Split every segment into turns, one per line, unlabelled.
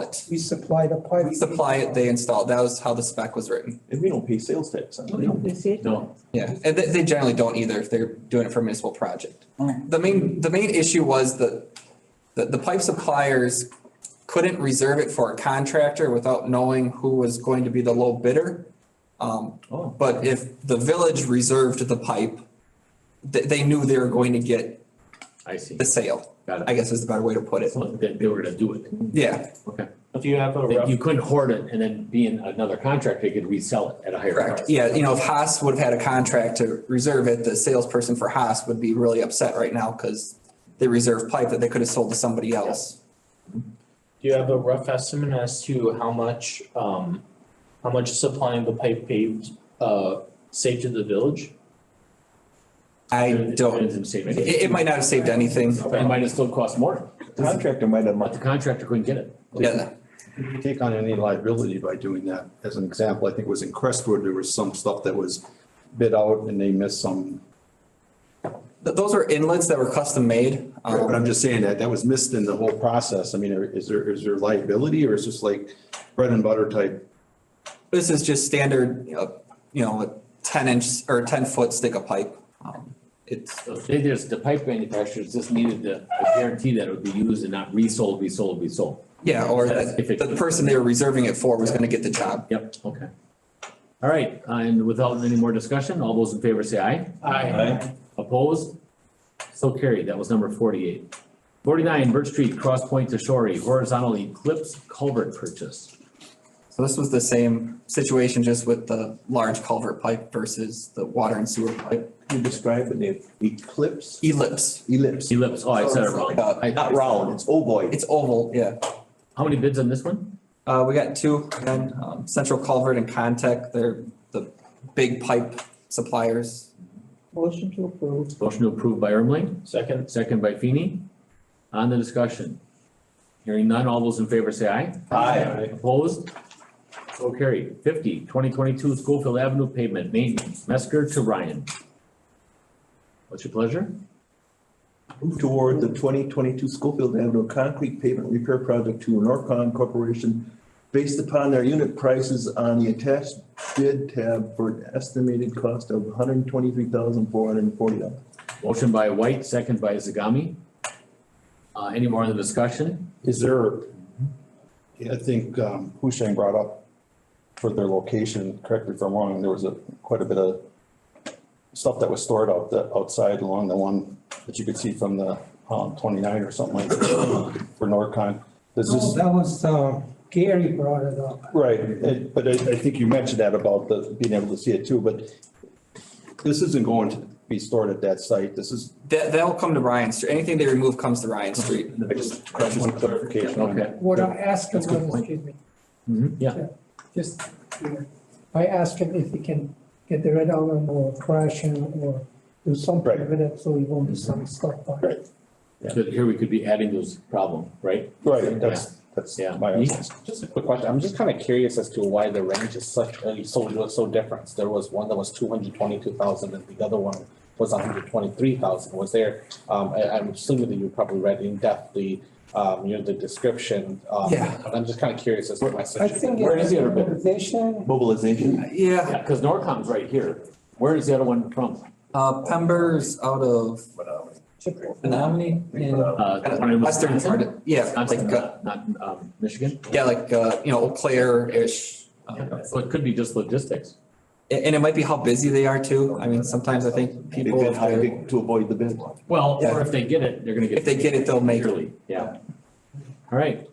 it.
We supply the pipe.
We supply it, they install it. That was how the spec was written.
And we don't pay sales tax on it.
No.
Yeah, and they, they generally don't either if they're doing it for a municipal project.
Oh.
Mm.
The main, the main issue was that, that the pipe suppliers couldn't reserve it for a contractor without knowing who was going to be the low bidder. Um,
Oh.
but if the village reserved the pipe, they, they knew they were going to get
I see.
the sale,
Got
I
it.
guess is the better way to put it.
So That they were gonna do it.
Yeah,
Do you have a
That
rough,
You couldn't hoard it and then be in another contract, they could resell it at a higher price.
correct. Yeah, you know, if Haas would have had a contract to reserve it, the salesperson for Haas would be really upset right now because they reserved pipe that they could have sold to somebody else.
do you have a rough estimate as to how much, um, how much supplying the pipe paved, uh, saved to the village?
I don't,
Depends on the same-
it, it might not have saved anything.
It might have still cost more,
Contractor might have,
but the
money.
contractor couldn't get it.
Yeah,
Did you take on any liability by doing that? As an example, I think it was in Crestwood, there was some stuff that was bid out and they missed some.
Th- those were inlets that were custom made.
But I'm
Um,
just saying that that was missed in the whole process. I mean, is there, is there liability or is this like bread and butter type?
this is just standard, you know, you know, a ten inch or ten foot stick of pipe. Um, It's,
So They just, the pipe manufacturers just needed to guarantee that it would be used and not resold, resold, resold.
yeah, or that
If it-
the person they were reserving it for was gonna get the job.
Yep, okay. All right, uh, and without any more discussion, all those in favor say aye.
Aye.
Opposed? So carried. That was number forty-eight. Forty-nine, Birch Street, Cross Point to Shorey, horizontal eclipse culvert purchase.
So this was the same situation, just with the large culvert pipe versus the water and sewer pipe.
you describe it, Dave? eclipse,
Ellipse,
ellipse,
Ellipse, oh, I said it wrong. I-
not round, it's ovoid.
it's oval, yeah.
How many bids on this one?
Uh, we got two, again, um, Central Culvert and Contact, they're the big pipe suppliers.
Motion to approve.
Motion to approve by Ermling,
Second,
second by Feeny. On the discussion. Hearing none, all those in favor say aye.
Aye.
Opposed? So carried. Fifty, twenty twenty-two Schofield Avenue pavement maintenance, Mesker to Ryan. What's your pleasure?
Move toward the twenty twenty-two Schofield Avenue concrete pavement repair project to Norcon Corporation based upon their unit prices on the attached bid tab for an estimated cost of one hundred and twenty-three thousand four hundred and forty dollars.
Motion by White, second by Zagami. Uh, any more in the discussion?
Is there, I think um, Husheng brought up for their location, correct me if I'm wrong, there was a, quite a bit of stuff that was stored out the, outside along the one that you could see from the um, twenty-nine or something like that for Norcon. Does
No,
this?
that was, uh, Gary brought it up.
Right, it- but I, I think you mentioned that about the, being able to see it too, but this isn't going to be stored at that site, this is,
That, that'll come to Ryan Street, anything they remove comes to Ryan Street.
I just, I just want clarification on that.
Okay. Mm-hmm.
What I asked him
That's a good
was,
point.
excuse me,
Yeah,
just, you know, I asked him if he can get the red outline or crash him or do something
Right.
with it, so he won't be some stuff by.
Right.
so here we could be adding those problem, right?
Right, that's, that's
Yeah.
my.
Just a quick question, I'm just kind of curious as to why the range is such, uh, so, so different. There was one that was two hundred twenty-two thousand and the other one was hundred twenty-three thousand. Was there, um, I, I'm assuming that you probably read in depth the, um, you know, the description. um,
Yeah.
But I'm just kind of curious as to why such.
I think.
Where is the other bit?
organization?
Mobilization,
Yeah,
Yeah, because Norcom's right here. Where is the other one from?
uh, Pember's out of Menominee in
Uh, the one in
western part,
Wisconsin?
of- yeah,
Wisconsin,
like, uh,
Not, not, um, Michigan?
yeah, like, uh, you know, Eau Claire-ish. Uh,
Yeah, So it could be just logistics.
And, and it might be how busy they are too. I mean, sometimes I think
they
people,
bid
if they're-
high to avoid the bid.
Well,
Yeah.
or if they get it, they're gonna get.
if they get it, they'll make it.
Yearly, Yeah. All right,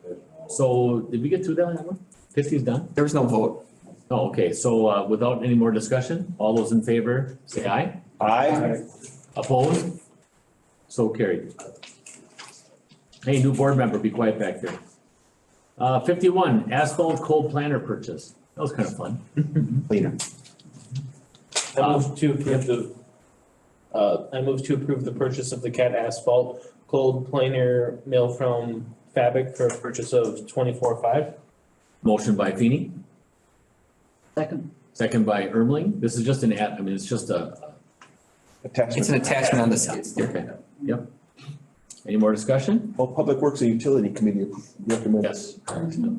so did we get through that one? Fifty's done?
There was no vote.
Oh, okay, so uh, without any more discussion, all those in favor, say aye.
Aye.
Opposed? So carried. Hey, new board member, be quiet back there. Uh, fifty-one, asphalt cold planter purchase. That was kind of fun.
Cleaner.
Um,
I move to approve the, uh, I move to approve the purchase of the CAT asphalt cold planer mill from Fabric for a purchase of twenty-four five.
Motion by Feeny. Second. Second by Ermling. This is just an ad, I mean, it's just a,
It's
Attachment,
an attachment on the skid steer.
okay, yep. Any more discussion?
well, Public Works and Utility Committee recommends.
Yes.